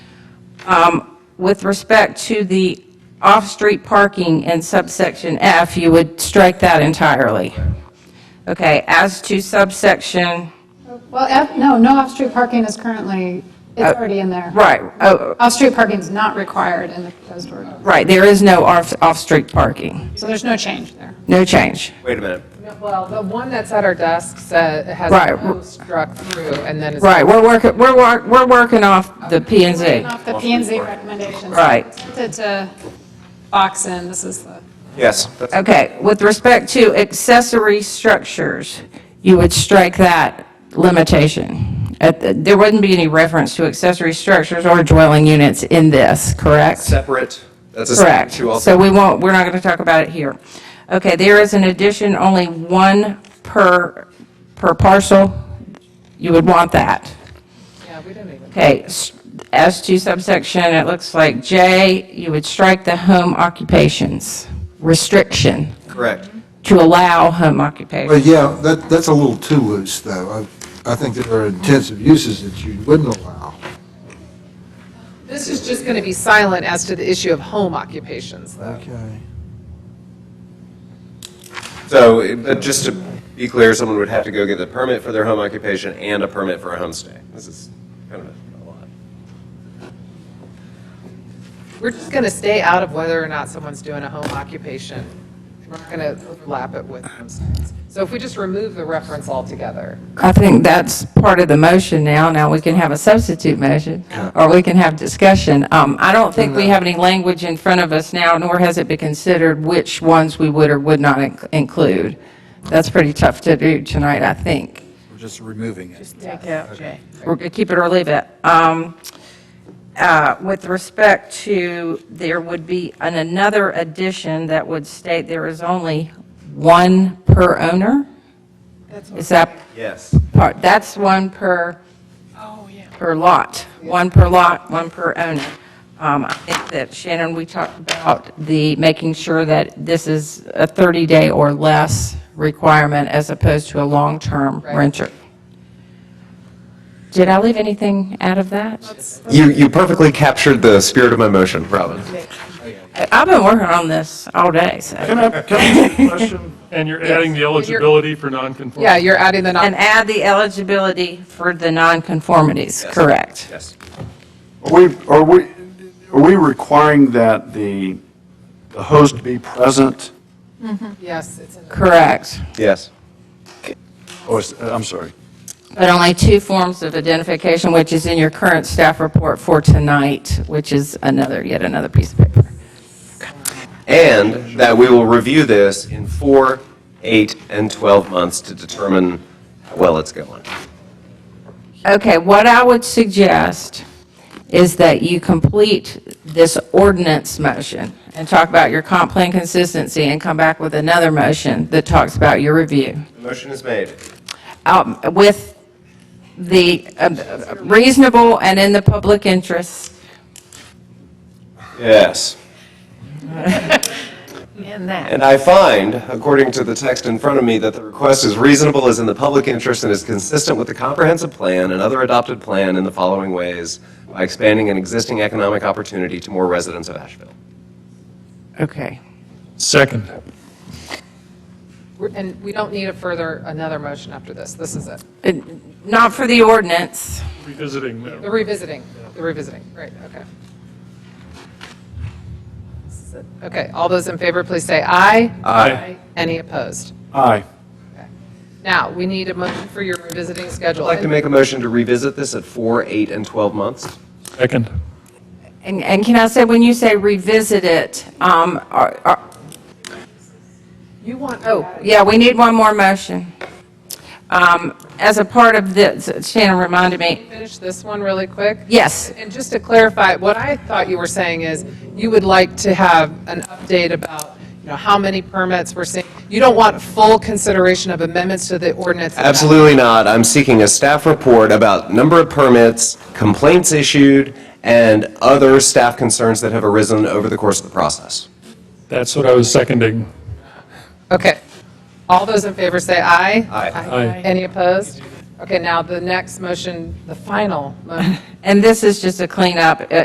Um, With respect to the off-street parking in subsection F, you would strike that entirely. Okay, as to subsection, Well, F- no, no off-street parking is currently, it's already in there. right, oh, Off-street parking is not required in the proposed ordinance, right, there is no off- off-street parking. so there's no change there. No change. Wait a minute. No, Well, the one that's at our desk says, has Right. no struck through, and then it's. Right, we're working, we're, wor- we're working off the P and Z. Off the P and Z recommendations. Right. Tempted to box in, this is the, Yes, that's, Okay, with respect to accessory structures, you would strike that limitation. At the- There wouldn't be any reference to accessory structures or dwelling units in this, correct? separate, that's a separate Correct. issue also. So we won't, we're not going to talk about it here. Okay, there is an addition, only one per, per parcel. You would want that. Yeah, we didn't even. Okay, s- as to subsection, it looks like J, you would strike the home occupations restriction Correct. to allow home Well, occupation. yeah, that, that's a little too loose, though. I, I think there are intensive uses that you wouldn't allow. This is just going to be silent as to the issue of home occupations, though. Okay. So, it- but just to be clear, someone would have to go get the permit for their home occupation and a permit for a homestay. This is kind of a lot. We're just going to stay out of whether or not someone's doing a home occupation. We're not going to overlap it with homesteads. So if we just remove the reference altogether, I think that's part of the motion now. Now we can have a substitute motion, or we can have discussion. Um, I don't think we have any language in front of us now, nor has it been considered which ones we would or would not inc- include. That's pretty tough to do tonight, I think. We're just removing it. We're going to keep it or leave it. Um, uh, With respect to, there would be an- another addition that would state there is only one per owner? Is that Yes. part, that's one per, Oh, per lot, one per lot, one per owner. Um, I think that Shannon, we talked about the, making sure that this is a 30-day or less requirement as opposed to a long-term renter. Did I leave anything out of that? You, you perfectly captured the spirit of my motion, Robin. I- I've been working on this all day, so. Can I, can I ask a question? And you're adding the eligibility for nonconformity? yeah, you're adding the And non, add the eligibility for the nonconformities, correct? Yes. Are we, are we, are we requiring that the, the host be present? yes, it's in the Correct. Yes. Oh, it's- I'm sorry. But only two forms of identification, which is in your current staff report for tonight, which is another, yet another piece of paper. And that we will review this in four, eight, and 12 months to determine how well it's going. Okay, what I would suggest is that you complete this ordinance motion and talk about your comp plan consistency and come back with another motion that talks about your review. The motion is made. um, with the um, reasonable and in the public interest. Yes. And I find, according to the text in front of me, that the request is reasonable, is in the public interest, and is consistent with the comprehensive plan and other adopted plan in the following ways, by expanding an existing economic opportunity to more residents of Asheville. Okay. Second. We're- And we don't need a further, another motion after this. This is it. Uh, Not for the ordinance. Revisiting The revisiting, the revisiting, right, okay. Okay, all those in favor, please say aye. Aye. Any opposed? Aye. Now, we need a motion for your revisiting schedule. I'd like to make a motion to revisit this at four, eight, and 12 months. Second. And, and can I say, when you say revisit it, um, are- are- You want, oh, yeah, we need one more motion. Um, As a part of this, Shannon reminded me, finish this one really quick? yes, And just to clarify, what I thought you were saying is you would like to have an update about, you know, how many permits we're seeing. You don't want full consideration of amendments to the ordinance. Absolutely not. I'm seeking a staff report about number of permits, complaints issued, and other staff concerns that have arisen over the course of the process. That's what I was seconding. Okay. All those in favor say aye. Aye. Aye. Any opposed? Okay, now the next motion, the final motion. and this is just a cleanup. Uh,